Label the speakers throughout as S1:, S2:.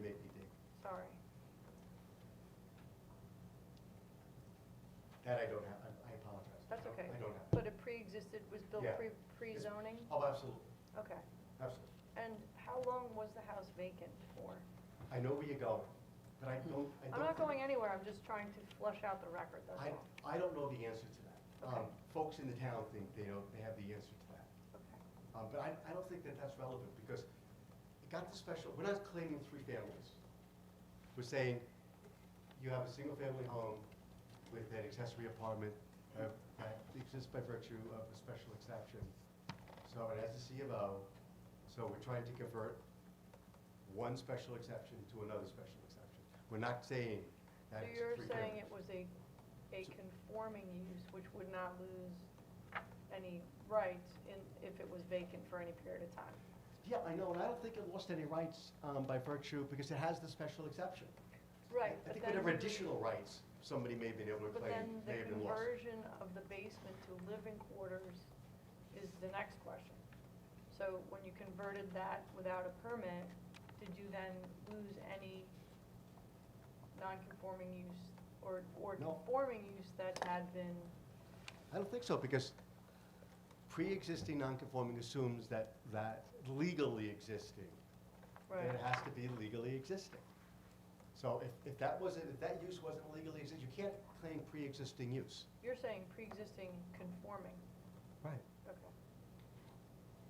S1: made me dig.
S2: Sorry.
S1: That I don't have, I- I apologize.
S2: That's okay.
S1: I don't have.
S2: But it pre-existed, was built
S1: Yeah.
S2: pre, pre-zoning?
S1: Oh, absolutely,
S2: Okay.
S1: absolutely.
S2: And how long was the house vacant for?
S1: I know where you're going, but I don't, I don't.
S2: I'm not going anywhere, I'm just trying to flush out the record, that's
S1: I,
S2: all.
S1: I don't know the answer to that.
S2: Okay.
S1: Um, Folks in the town think they know, they have the answer to that.
S2: Okay.
S1: Um, But I, I don't think that that's relevant, because it got the special, we're not claiming three families. We're saying, you have a single-family home with an accessory apartment uh, that exists by virtue of a special exception. So it has a C of O, so we're trying to convert one special exception to another special exception. We're not saying
S2: So
S1: that it's
S2: you're
S1: three families.
S2: saying it was a, a conforming use which would not lose any rights in, if it was vacant for any period of time?
S1: Yeah, I know, and I don't think it lost any rights um, by virtue, because it has the special exception.
S2: Right,
S1: I
S2: but
S1: think
S2: then,
S1: whatever additional rights somebody may have been able to
S2: but
S1: claim,
S2: then
S1: may
S2: the
S1: have been lost.
S2: conversion of the basement to living quarters is the next question. So when you converted that without a permit, did you then lose any non-conforming use or, or
S1: No.
S2: conforming use that had been,
S1: I don't think so, because pre-existing non-conforming assumes that, that legally existing, that
S2: right?
S1: it has to be legally existing. So if, if that wasn't, if that use wasn't legally existing, you can't claim pre-existing use.
S2: You're saying pre-existing conforming,
S1: Right.
S2: okay.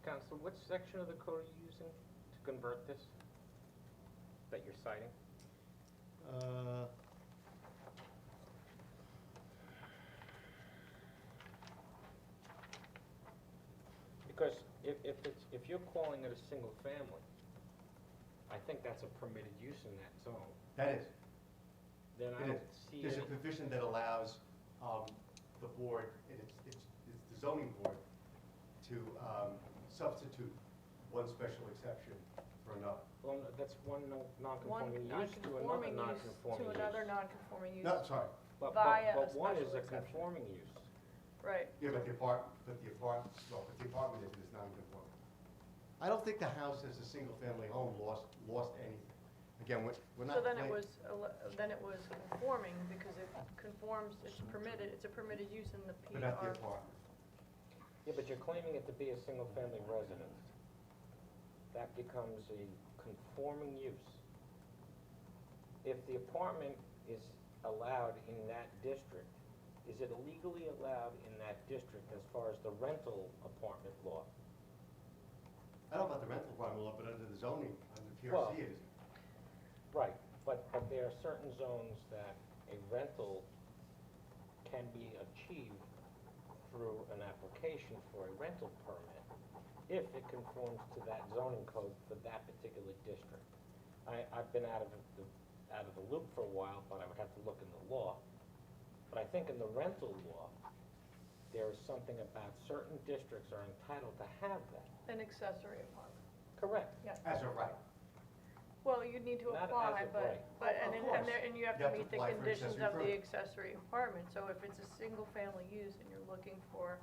S3: Counsel, which section of the code are you using to convert this that you're citing?
S1: Uh,
S3: Because if, if it's, if you're calling it a single family, I think that's a permitted use in that zone,
S1: That is,
S3: then I
S1: It
S3: don't see
S1: there's a
S3: any,
S1: provision that allows um, the board, and it's, it's it's the zoning board, to um, substitute one special exception for another.
S3: well, no, that's one no-
S2: one
S3: non-conforming use to
S2: non-conforming
S3: another
S2: use
S3: non-conforming
S2: to
S3: use.
S2: another non-conforming use.
S1: No, sorry,
S3: But,
S2: via a
S3: but, but one is
S2: special
S3: a
S2: exception.
S3: conforming use.
S2: Right,
S1: Yeah, but the apartment, but the apartment, well, but the apartment is, is non-conforming. I don't think the house as a single-family home lost, lost anything. Again, we're, we're not.
S2: so then it
S1: claim-
S2: was, ele- then it was conforming, because it conforms, it's permitted, it's a permitted use in the
S1: But not the
S2: PR.
S1: apartment.
S3: Yeah, but you're claiming it to be a single-family residence. That becomes a conforming use. If the apartment is allowed in that district, is it legally allowed in that district as far as the rental apartment law?
S1: I don't know about the rental apartment law, but under the zoning, under
S3: Well-
S1: PRC it is.
S3: Right, but, but there are certain zones that a rental can be achieved through an application for a rental permit if it conforms to that zoning code for that particular district. I, I've been out of the, out of the loop for a while, but I would have to look in the law. But I think in the rental law, there is something about certain districts are entitled to have that.
S2: An accessory apartment.
S3: Correct.
S1: As a right.
S2: Well, you'd need to
S3: Not as
S2: apply,
S3: of
S2: but,
S3: right.
S2: but,
S1: Of
S2: and, it-
S1: course.
S2: and there, and you have
S1: You
S2: to
S1: have to
S2: meet the
S1: apply for
S2: conditions
S1: accessory
S2: of the
S1: permit.
S2: accessory apartment. So if it's a single-family use and you're looking for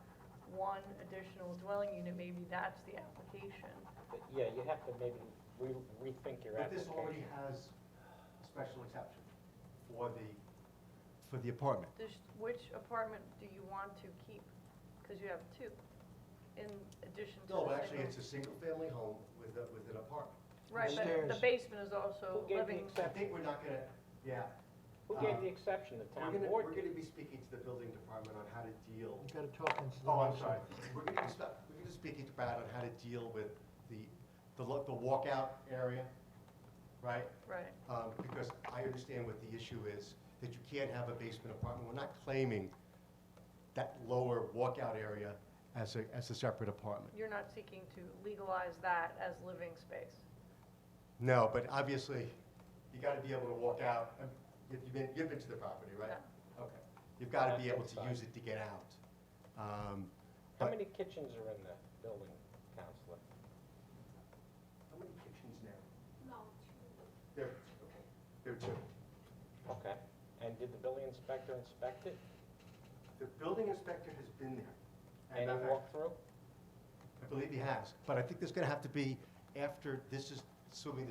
S2: one additional dwelling unit, maybe that's the application.
S3: But, yeah, you have to maybe re- rethink your
S1: But
S3: application.
S1: this already has a special exception for the, for the apartment.
S2: This, which apartment do you want to keep? Because you have two, in addition to the
S1: No,
S2: single.
S1: but actually, it's a single-family home with a, with an apartment.
S2: Right, but the
S4: Upstairs.
S2: basement is also
S3: Who gave the
S2: living,
S3: exception?
S1: I think we're not gonna, yeah.
S3: Who gave the exception, the
S1: We're
S3: town
S1: gonna-
S3: board
S1: We're
S3: did.
S1: gonna be speaking to the building department on how to deal
S4: You gotta talk into the.
S1: Oh, I'm
S4: mic.
S1: sorry. We're going to, we're going to speak about on how to deal with the, the lo- the walkout area, right?
S2: right.
S1: Um, Because I understand what the issue is, that you can't have a basement apartment. We're not claiming that lower walkout area as a, as a separate apartment.
S2: You're not seeking to legalize that as living space.
S1: No, but obviously, you got to be able to walk out. Um, you- You've been, you've been to the property, right? Okay. You've got to be able to use it to get out. Um,
S3: How
S1: but-
S3: many kitchens are in the building, counselor?
S1: How many kitchens now? No, two. There, okay, there are two.
S3: Okay. And did the building inspector inspect it?
S1: The building inspector has been there.
S3: Any
S1: I- I-
S3: walkthrough?
S1: I believe he has, but I think there's gonna have to be, after this is, assuming